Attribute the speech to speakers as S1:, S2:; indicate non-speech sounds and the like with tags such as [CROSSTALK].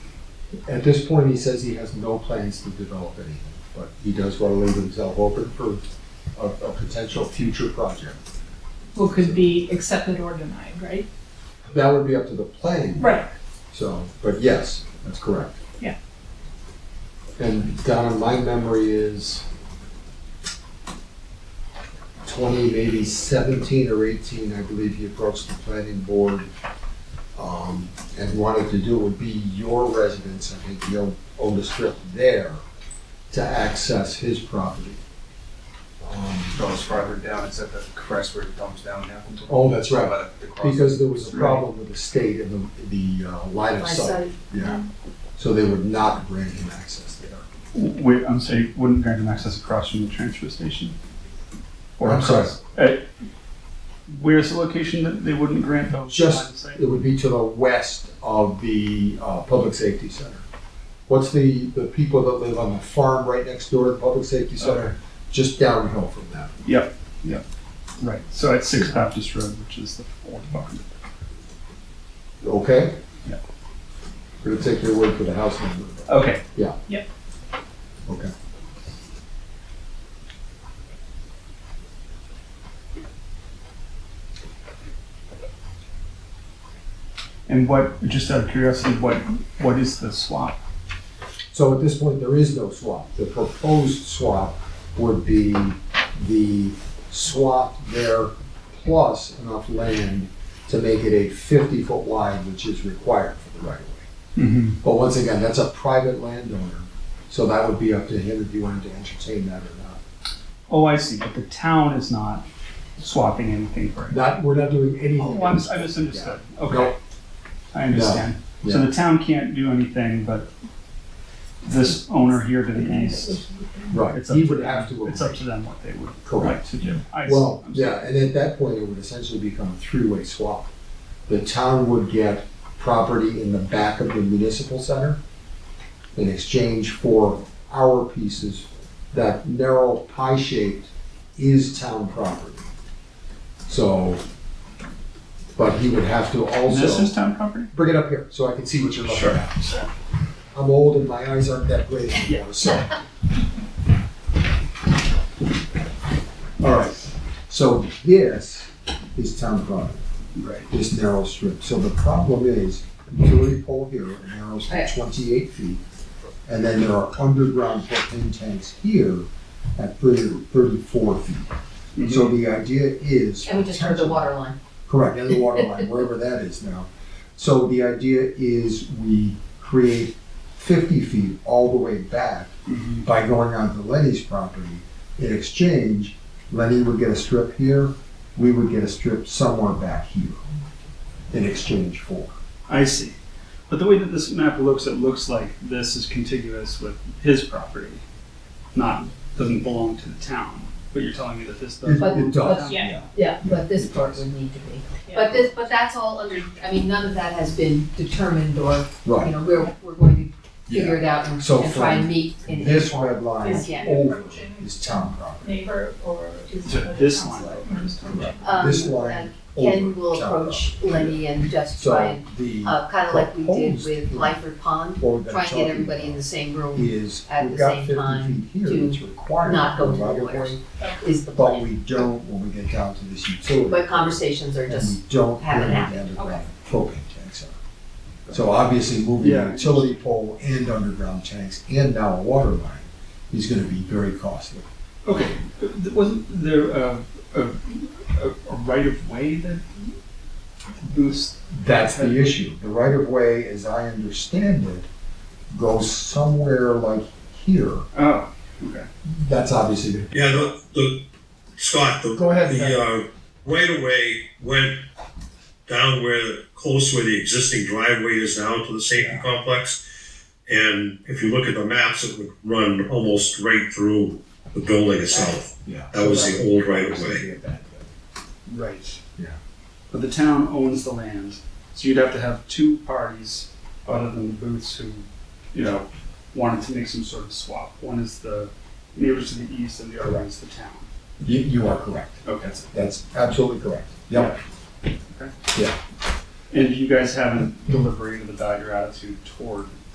S1: At this point, he says he has no plans to develop anything, but he does want to leave himself open for a, a potential future project.
S2: What could be accepted or denied, right?
S1: That would be up to the planning. board.
S2: Right.
S1: So, but yes, that's correct.
S2: Yeah.
S1: And Donna, my memory is twenty, maybe seventeen or eighteen, I believe he approached the planning board um, and wanted to do, it would be your residence, I think he owned, owned a strip there to access his property. Um,
S3: goes farther down, it's at the crest where it comes down now.
S1: Oh, that's right,
S3: By the- the cross-
S1: because there was a problem with the state and the, the uh, line of
S4: My
S1: sight. Mm-hmm.
S4: son,
S1: Yeah, so they would not grant him access there.
S5: Wait, I'm sorry, wouldn't grant him access across from the transfer station? Or
S1: I'm sorry.
S5: across- eh, Where's the location that they wouldn't grant those?
S1: Just-
S5: lines of sight?
S1: It would be to the west of the uh, Public Safety Center. What's the, the people that live on the farm right next door to the Public Safety Center? Just downhill from that.
S5: Yep, yep, right, so at Six Baptist Road, which is the fourth farm.
S1: Okay?
S5: Yeah.
S1: We're gonna take your word for the house number.
S5: Okay,
S1: Okay.
S5: and what, just out of curiosity, what, what is the swap?
S1: So at this point, there is no swap. The proposed swap would be the swap there plus enough land to make it a fifty-foot wide, which is required for the right of way.
S5: Mm-hmm.
S1: But once again, that's a private landowner, so that would be up to him if he wanted to entertain that or not.
S5: Oh, I see, but the town is not swapping anything for it.
S1: Not, we're not doing
S5: Oh,
S1: anything.
S5: I mis- I misunderstood, okay.
S1: Nope.
S5: I understand. So
S1: Yeah.
S5: the town can't do anything, but this owner here to the east,
S1: Right,
S5: it's up
S1: he
S5: to
S1: would have to.
S5: them, it's up to them what they would like
S1: Correct.
S5: to do. I see.
S1: Well,
S5: I'm sorry.
S1: yeah, and at that point, it would essentially become a three-way swap. The town would get property in the back of the municipal center in exchange for our pieces. That narrow pie-shaped is town property. So, but he would have to
S5: And
S1: also.
S5: This is town property?
S1: Bring it up here so I can see what you're looking
S5: Sure.
S1: at. I'm old and my eyes aren't that great anymore, so. All right, so this is town property,
S5: Right.
S1: this narrow strip. So the problem is, utility pole here narrows
S4: Oh,
S1: to twenty-eight feet. And then there are underground propane tanks here at 30 34 feet.
S5: Mm-hmm.
S1: So the idea is.
S4: And we just heard the water line.
S1: Correct, and the water [LAUGHS] line, wherever that is now. So the idea is we create fifty feet all the way back
S5: Mhm.
S1: by going onto Lenny's property. In exchange, Lenny would get a strip here, we would get a strip somewhere back here in exchange for.
S5: I see. But the way that this map looks, it looks like this is contiguous with his property, not, doesn't belong to the town. But you're telling me that this does.
S1: It, it does,
S2: Yeah.
S4: Yeah, but this part would need to be.
S2: Yeah.
S4: But this, but that's all under, I mean, none of that has been determined or, you
S1: right.
S4: know, we're, we're going to
S1: Yeah.
S4: figure it out and
S1: So
S4: and try and
S1: from
S4: meet in.
S1: This red line
S4: Yeah.
S1: over is town property.
S2: Neighbor or is
S5: So
S2: it
S5: this
S2: council?
S5: line.
S4: Um,
S1: This line
S4: and
S1: over
S4: Ken will
S1: town
S4: approach
S1: property.
S4: Lenny and just try
S1: So
S4: and,
S1: the,
S4: uh, kind of like we did
S1: proposed
S4: with
S1: plan-
S4: Lyford Pond,
S1: what we've been
S4: try and
S1: talking
S4: get everybody in
S1: about.
S4: the same room
S1: is
S4: at
S1: we've
S4: the
S1: got
S4: same
S1: fifty
S4: time
S1: feet here
S4: to
S1: that's required.
S4: not go
S1: for
S4: to the
S1: right of
S4: lawyers.
S1: way,
S4: is the
S1: But
S4: plan.
S1: we don't when we get down to this utility.
S4: But conversations are
S1: and
S4: just,
S1: we don't
S4: have
S1: really
S4: an app.
S1: underground propane tanks are. So obviously moving
S5: Yeah.
S1: a utility pole and underground tanks and now a water line is gonna be very costly.
S5: Okay, th- wasn't there a, a, a- a right of way that boosts?
S1: That's the issue. The right of way, as I understand it, goes somewhere like here.
S5: Oh,
S1: That's obviously,
S6: Yeah, the, the, Scott, the.
S1: Go ahead, Zach.
S6: The, uh, right of way went down where, close where the existing driveway is now to the safety complex. And if you look at the maps, it would run almost right through the building itself.
S1: yeah.
S6: That was the old right of way.
S1: way.
S5: right.
S1: Yeah.
S5: But the town owns the land, so you'd have to have two parties other than the Booths who, you know, wanted to make some sort of swap. One is the neighbors to the east and the other one is the town.
S1: You, you are correct.
S5: Okay.
S1: That's absolutely correct. Yep.
S5: Okay.
S1: Yeah.
S5: And you guys haven't deliberated about your attitude toward